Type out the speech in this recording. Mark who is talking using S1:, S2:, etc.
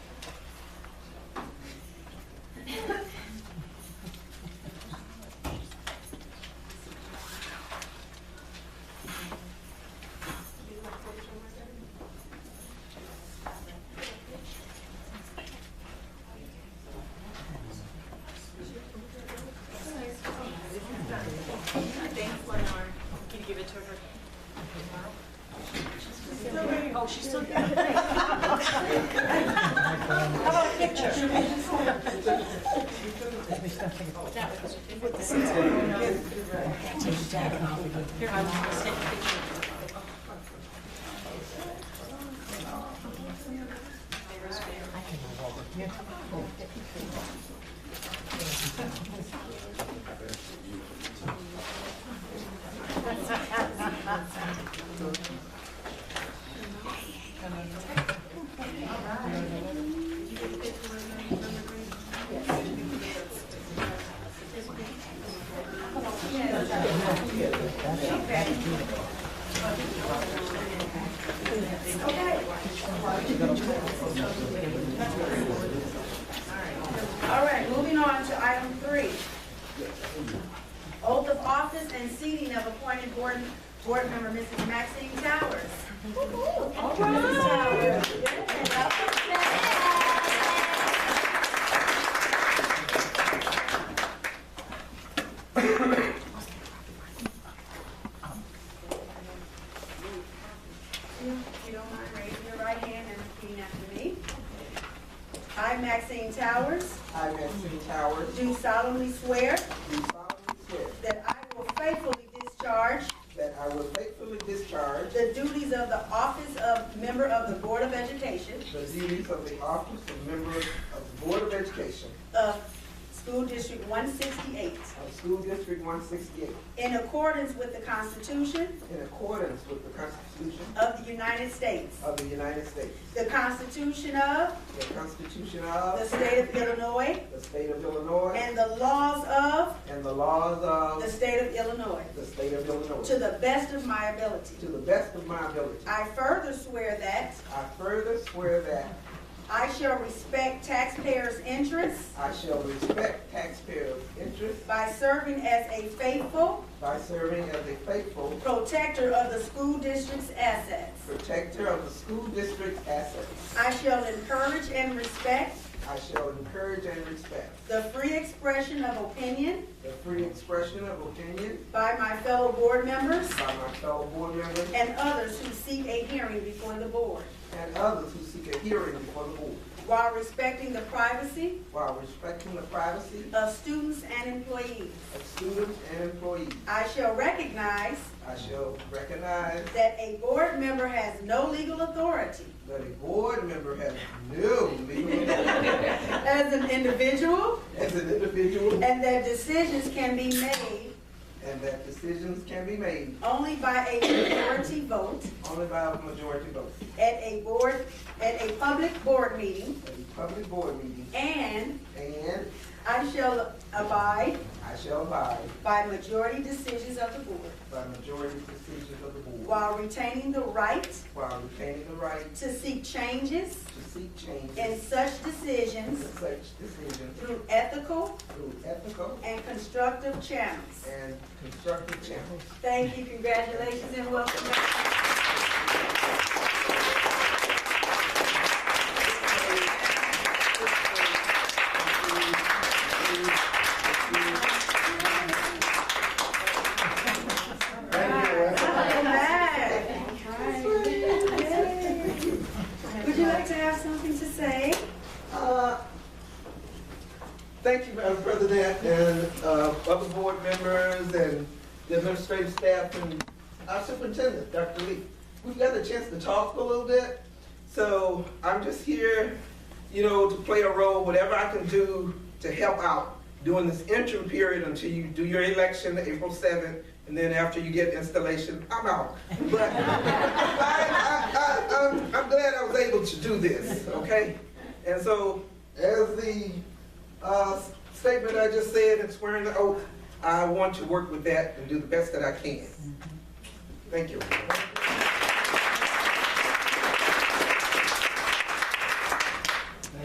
S1: Oh, she's still got it. How about a picture? That was- Here, I will take a picture.
S2: All right, moving on to item three. Oath of office and seating of appointed board, board member Mrs. Maxine Towers. All right, Mrs. Towers. If you don't mind, raising your right hand and repeating after me. I, Maxine Towers,
S3: I, Maxine Towers,
S2: do solemnly swear
S3: do solemnly swear
S2: that I will faithfully discharge
S3: that I will faithfully discharge
S2: the duties of the office of member of the Board of Education
S3: the duties of the office of member of the Board of Education
S2: of School District 168
S3: of School District 168
S2: in accordance with the Constitution
S3: in accordance with the Constitution
S2: of the United States,
S3: of the United States,
S2: the Constitution of
S3: the Constitution
S2: the
S3: of
S2: State of Illinois,
S3: the State of Illinois,
S2: and the laws of
S3: and the laws
S2: the
S3: of
S2: State of Illinois,
S3: the State of
S2: to
S3: Illinois,
S2: the best of my ability.
S3: to the best of my ability.
S2: I further swear that
S3: I further swear that
S2: I shall respect taxpayers' interests
S3: I shall respect taxpayers' interests
S2: by serving as a faithful
S3: by serving as a faithful
S2: protector of the school district's assets.
S3: protector of the school district's assets.
S2: I shall encourage and respect
S3: I shall encourage and respect
S2: the free expression of opinion
S3: the free expression of opinion
S2: by my fellow board members
S3: by my fellow board members
S2: and others who seek a hearing before the board,
S3: and others who seek a hearing before the board,
S2: while respecting the privacy
S3: while respecting the privacy
S2: of students and employees.
S3: of students and employees.
S2: I shall recognize
S3: I shall recognize
S2: that a board member has no legal authority
S3: that a board member has no legal authority
S2: as an individual
S3: as an individual
S2: and that decisions can be made
S3: and that decisions can be made
S2: only by a majority vote
S3: only by a majority vote
S2: at a board, at a public board meeting,
S3: at a public board meeting,
S2: and
S3: and
S2: I shall abide
S3: I shall abide
S2: by majority decisions of the board
S3: by majority decisions of the board
S2: while retaining the right
S3: while retaining the right
S2: to seek changes
S3: to seek changes
S2: in such
S3: and
S2: decisions
S3: such decisions
S2: through ethical
S3: through ethical
S2: and constructive channels.
S3: and constructive channels.
S2: Thank you, congratulations, and welcome back. Welcome back. Yay. Would you like to have something to say?
S3: Uh, Thank you, Madam President, and uh, other board members and the administrative staff and our superintendent, Dr. Lee. We've got a chance to talk a little bit, so I'm just here, you know, to play a role, whatever I can do to help out during this interim period until you do your election, April 7th, and then after you get installation, I'm out. But I, I, I, I'm, I'm glad I was able to do this, okay? And so, as the uh, statement I just said and swearing the oath, I want to work with that and do the best that I can. Thank you.